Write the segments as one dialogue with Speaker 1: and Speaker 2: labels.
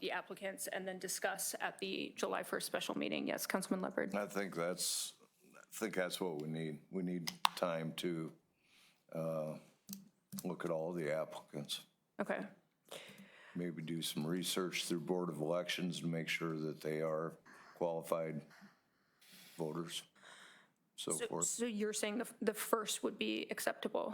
Speaker 1: the applicants and then discuss at the July 1st special meeting. Yes, Councilman Leopard.
Speaker 2: I think that's, I think that's what we need. We need time to uh, look at all the applicants,
Speaker 1: Okay,
Speaker 2: maybe do some research through Board of Elections to make sure that they are qualified voters, so forth.
Speaker 1: so you're saying the, the first would be acceptable?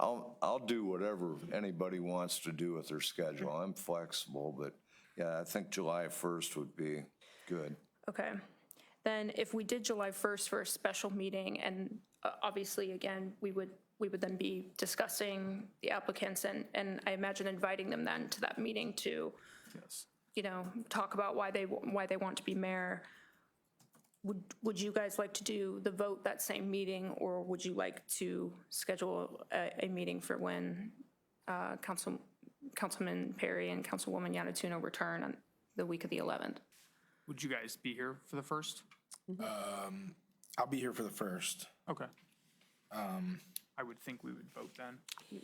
Speaker 2: I'll, I'll do whatever anybody wants to do with their schedule. I'm flexible, but yeah, I think July 1st would be good.
Speaker 1: Okay. Then if we did July 1st for a special meeting, and uh, obviously, again, we would, we would then be discussing the applicants and, and I imagine inviting them then to that meeting to, you know, talk about why they, wa- why they want to be mayor. Would, would you guys like to do the vote that same meeting, or would you like to schedule a, a meeting for when uh, Council, Councilman Perry and Councilwoman Yanatuno return on the week of the 11th?
Speaker 3: Would you guys be here for the first?
Speaker 4: Um, I'll be here for the first.
Speaker 3: Okay. Um, I would think we would vote then.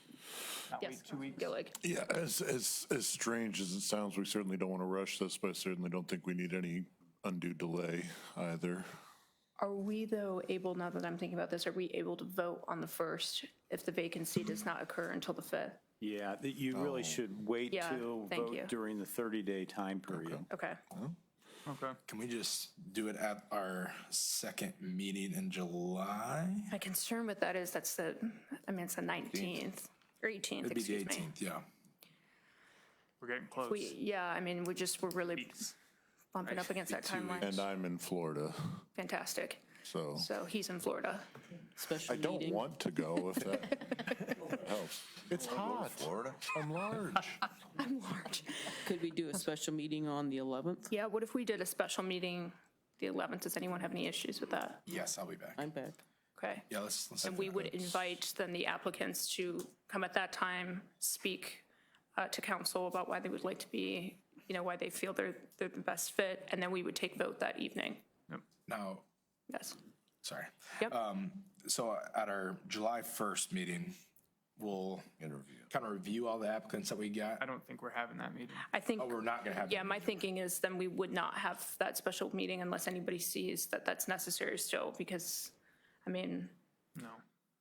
Speaker 3: Not wait two weeks.
Speaker 1: Gillig.
Speaker 5: Yeah, as, as, as strange as it sounds, we certainly don't want to rush this, but I certainly don't think we need any undue delay either.
Speaker 1: Are we though able, now that I'm thinking about this, are we able to vote on the first if the vacancy does not occur until the 5th?
Speaker 6: Yeah, that you really should wait
Speaker 1: Yeah,
Speaker 6: to
Speaker 1: thank you.
Speaker 6: vote during the 30-day time period.
Speaker 1: Okay,
Speaker 3: Okay.
Speaker 4: Can we just do it at our second meeting in July?
Speaker 1: my concern with that is that's the, I mean, it's the 19th or 18th,
Speaker 4: It'd be the
Speaker 1: excuse me.
Speaker 4: 18th, yeah.
Speaker 3: We're getting close.
Speaker 1: We, yeah, I mean, we just, we're really bumping up against that timeline.
Speaker 5: And I'm in Florida,
Speaker 1: Fantastic.
Speaker 5: so
Speaker 1: So he's in Florida.
Speaker 5: I don't want to go if that helps. It's hot.
Speaker 2: Florida?
Speaker 5: I'm large.
Speaker 1: I'm large.
Speaker 7: Could we do a special meeting on the 11th?
Speaker 1: Yeah, what if we did a special meeting the 11th? Does anyone have any issues with that?
Speaker 4: Yes, I'll be back.
Speaker 7: I'm back.
Speaker 1: Okay.
Speaker 4: Yeah, let's, let's.
Speaker 1: And we would invite then the applicants to come at that time, speak uh, to council about why they would like to be, you know, why they feel they're, they're the best fit, and then we would take vote that evening.
Speaker 4: Now,
Speaker 1: Yes.
Speaker 4: sorry. Um,
Speaker 1: Yep.
Speaker 4: So at our July first meeting, we'll
Speaker 2: Interview.
Speaker 4: kind of review all the applicants that we
Speaker 3: I
Speaker 4: got.
Speaker 3: don't think we're having that meeting.
Speaker 1: I think,
Speaker 4: Oh, we're not gonna have.
Speaker 1: yeah, my thinking is then we would not have that special meeting unless anybody sees that that's necessary still, because, I mean,
Speaker 3: No.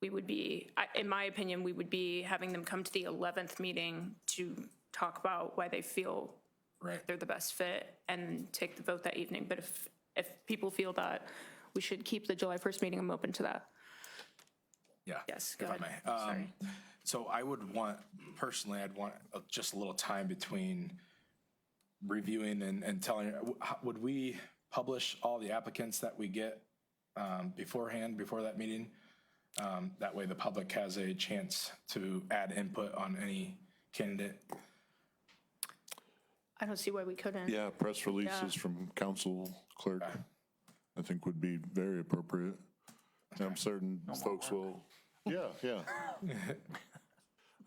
Speaker 1: we would be, I- in my opinion, we would be having them come to the 11th meeting to talk about why they feel
Speaker 4: Right.
Speaker 1: they're the best fit and take the vote that evening. But if, if people feel that, we should keep the July 1st meeting, I'm open to that.
Speaker 4: Yeah.
Speaker 1: Yes, go
Speaker 4: if I
Speaker 1: ahead.
Speaker 4: may. Um,
Speaker 1: Sorry.
Speaker 4: So I would want, personally, I'd want uh, just a little time between reviewing and, and telling, w- how- would we publish all the applicants that we get um, beforehand, before that meeting? Um, That way the public has a chance to add input on any candidate.
Speaker 1: I don't see why we couldn't.
Speaker 5: Yeah, press releases from council clerk, I think would be very appropriate. And I'm certain folks will, yeah, yeah.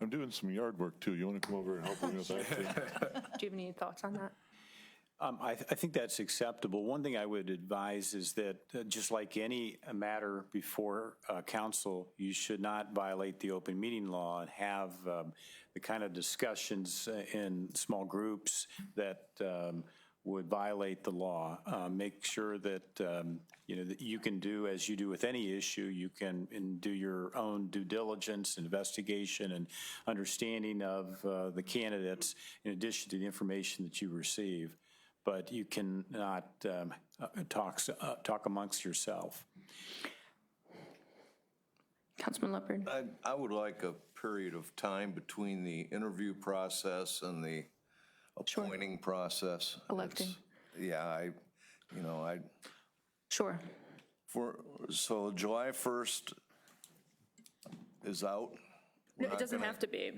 Speaker 5: I'm doing some yard work too. You want to come over and help me with that too?
Speaker 1: Do you have any thoughts on that?
Speaker 6: Um, I, I think that's acceptable. One thing I would advise is that, uh, just like any matter before uh, council, you should not violate the open meeting law and have um, the kind of discussions uh, in small groups that um, would violate the law. Uh, Make sure that, um, you know, that you can do, as you do with any issue, you can and do your own due diligence, investigation, and understanding of uh, the candidates in addition to the information that you receive but you cannot um, uh, talk, s- uh, talk amongst yourself.
Speaker 1: Councilman Leopard?
Speaker 2: I, I would like a period of time between the interview process and the appointing process.
Speaker 1: Electing.
Speaker 2: It's- Yeah, I, you know, I,
Speaker 1: Sure.
Speaker 2: for, so July 1st is out?
Speaker 1: No, it doesn't have to be.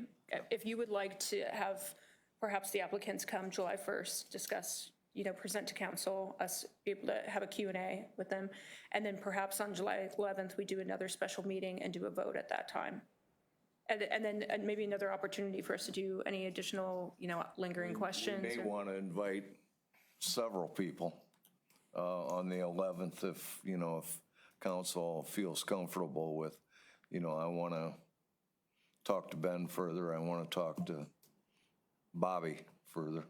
Speaker 1: If you would like to have perhaps the applicants come July 1st, discuss, you know, present to council, us be able to have a Q and A with them, and then perhaps on July 11th, we do another special meeting and do a vote at that time. And, and then and maybe another opportunity for us to do any additional, you know, lingering questions.
Speaker 2: May
Speaker 1: or-
Speaker 2: want to invite several people uh, on the 11th if, you know, if council feels comfortable with, you know, I want to talk to Ben further, I want to talk to Bobby further.